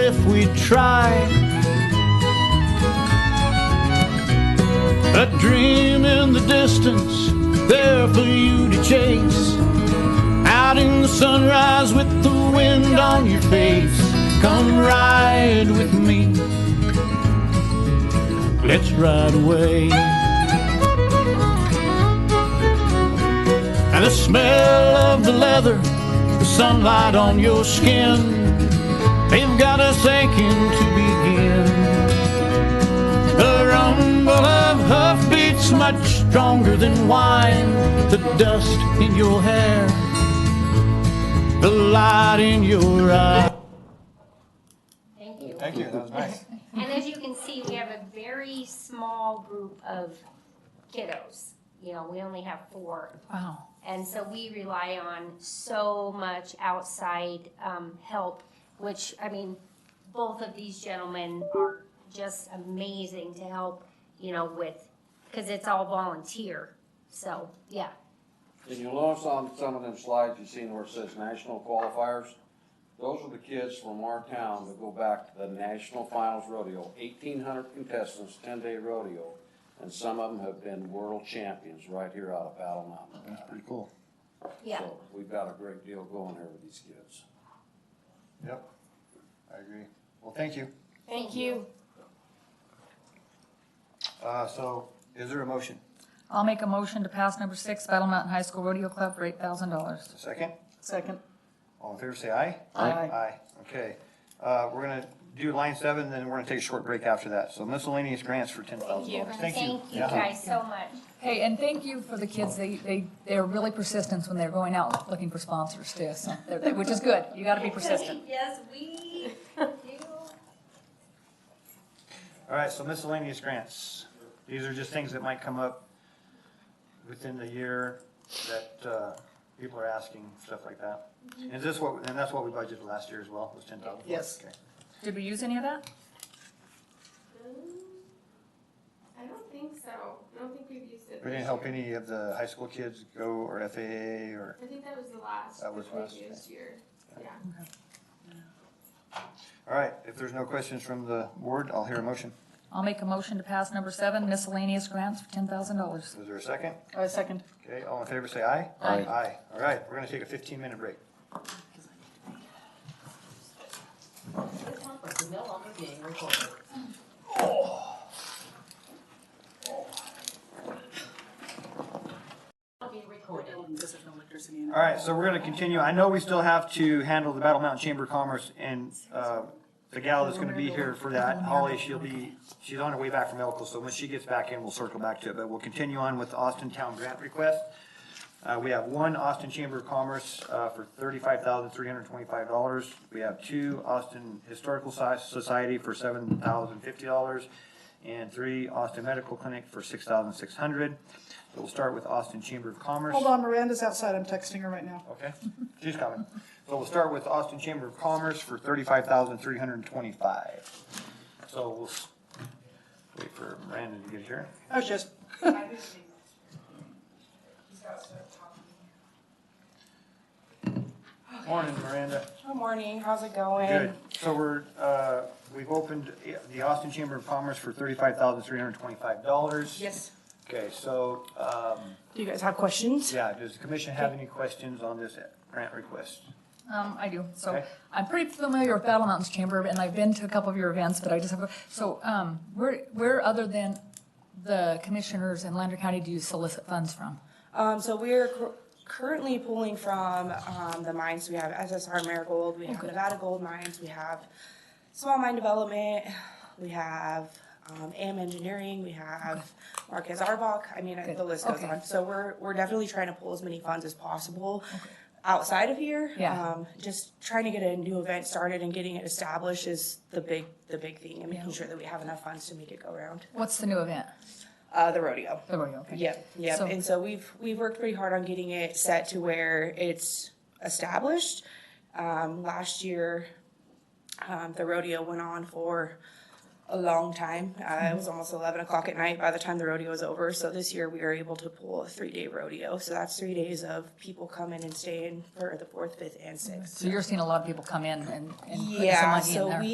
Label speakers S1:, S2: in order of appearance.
S1: if we try. A dream in the distance, there for you to chase. Out in the sunrise with the wind on your face. Come ride with me. Let's ride away. And the smell of the leather, the sunlight on your skin, they've got us aching to begin. The rumble of hoofbeats much stronger than wine, the dust in your hair, the light in your eyes.
S2: Thank you.
S3: Thank you, that was nice.
S2: And as you can see, we have a very small group of kiddos. You know, we only have four.
S4: Wow.
S2: And so we rely on so much outside um, help, which, I mean, both of these gentlemen are just amazing to help, you know, with, because it's all volunteer. So, yeah.
S3: And you'll notice on some of them slides, you've seen where it says national qualifiers. Those are the kids from our town that go back to the national finals rodeo, eighteen hundred contestants, ten-day rodeo. And some of them have been world champions right here out of Battle Mountain.
S5: That's pretty cool.
S2: Yeah.
S3: So We've got a great deal going here with these kids.
S5: Yep, I agree. Well, thank you.
S2: Thank you.
S5: Uh, so is there a motion?
S4: I'll make a motion to pass number six, Battle Mountain High School Rodeo Club for eight thousand dollars.
S5: A second?
S4: Second.
S5: All in favor, say aye.
S4: Aye. Aye.
S5: Aye, okay. Uh, we're gonna do line seven, then we're gonna take a short break after that. So miscellaneous grants for ten thousand dollars. Thank you.
S2: Thank you
S5: Yeah.
S2: guys so much.
S4: Hey, and thank you for the kids. They, they, they're really persistent when they're going out looking for sponsors too, so, they're- they- which is good. You gotta be persistent.
S2: Yes, we do.
S5: All right, so miscellaneous grants. These are just things that might come up within the year that, uh, people are asking, stuff like that. And this what, and that's what we budgeted last year as well, was ten thousand?
S4: Yes.
S5: Okay.
S4: Did we use any of that?
S6: I don't think so. I don't think we've used it.
S5: We didn't help any of the high school kids go or FAA or,
S6: I think that was the last.
S5: That was
S6: we
S5: last,
S6: used year. Yeah.
S5: all right, if there's no questions from the board, I'll hear a motion.
S4: I'll make a motion to pass number seven, miscellaneous grants for ten thousand dollars.
S5: Is there a second?
S4: Uh, second.
S5: Okay, all in favor, say aye.
S4: Aye.
S5: Aye. All right, we're gonna take a fifteen minute break. All right, so we're gonna continue. I know we still have to handle the Battle Mountain Chamber of Commerce and, uh, the gal that's gonna be here for that, Holly, she'll be, she's on her way back from Elko, so when she gets back in, we'll circle back to it, but we'll continue on with Austin Town Grant Request. Uh, we have one Austin Chamber of Commerce, uh, for thirty-five thousand, three hundred and twenty-five dollars. We have two Austin Historical Soci- Society for seven thousand, fifty dollars, and three Austin Medical Clinic for six thousand, six hundred. So we'll start with Austin Chamber of Commerce.
S7: Hold on, Miranda's outside. I'm texting her right now.
S5: Okay, she's coming. So we'll start with Austin Chamber of Commerce for thirty-five thousand three hundred and twenty-five. So we'll s- wait for Brandon to get here.
S7: I was just,
S5: Morning, Miranda.
S8: Good morning, how's it going?
S5: Good. So we're, uh, we've opened the Austin Chamber of Commerce for thirty-five thousand three hundred and twenty-five dollars.
S8: Yes.
S5: Okay, so, um,
S8: Do you guys have questions?
S5: yeah, does the commission have any questions on this grant request?
S4: Um, I do, so,
S5: Okay.
S4: I'm pretty familiar with Battle Mountains Chamber, and I've been to a couple of your events, but I just have, so, um, where, where other than the commissioners in Lander County do you solicit funds from?
S8: Um, so we're cur- currently pulling from, um, the mines, we have SSR Marigold, we have Nevada Gold Mines, we have Small Mine Development, we have, um, AM Engineering, we have Marquez Arbach, I mean,
S4: Good.
S8: the list goes
S4: Okay.
S8: on. So we're, we're definitely trying to pull as many funds as possible outside of here.
S4: Yeah.
S8: Um, Just trying to get a new event started and getting it established is the big, the big thing, and making sure that we have enough funds to make it go around.
S4: What's the new event?
S8: Uh, the rodeo.
S4: There we go, okay.
S8: Yep, yep.
S4: So-
S8: And so we've, we've worked pretty hard on getting it set to where it's established. Um, last year, um, the rodeo went on for a long time. Uh,
S4: Mm-hmm.
S8: it was almost eleven o'clock at night by the time the rodeo was over. So this year we were able to pull a three-day rodeo. So that's three days of people coming and staying for the fourth, fifth, and sixth.
S4: So you're seeing a lot of people come in and, and put some money in there?
S8: Yeah, so we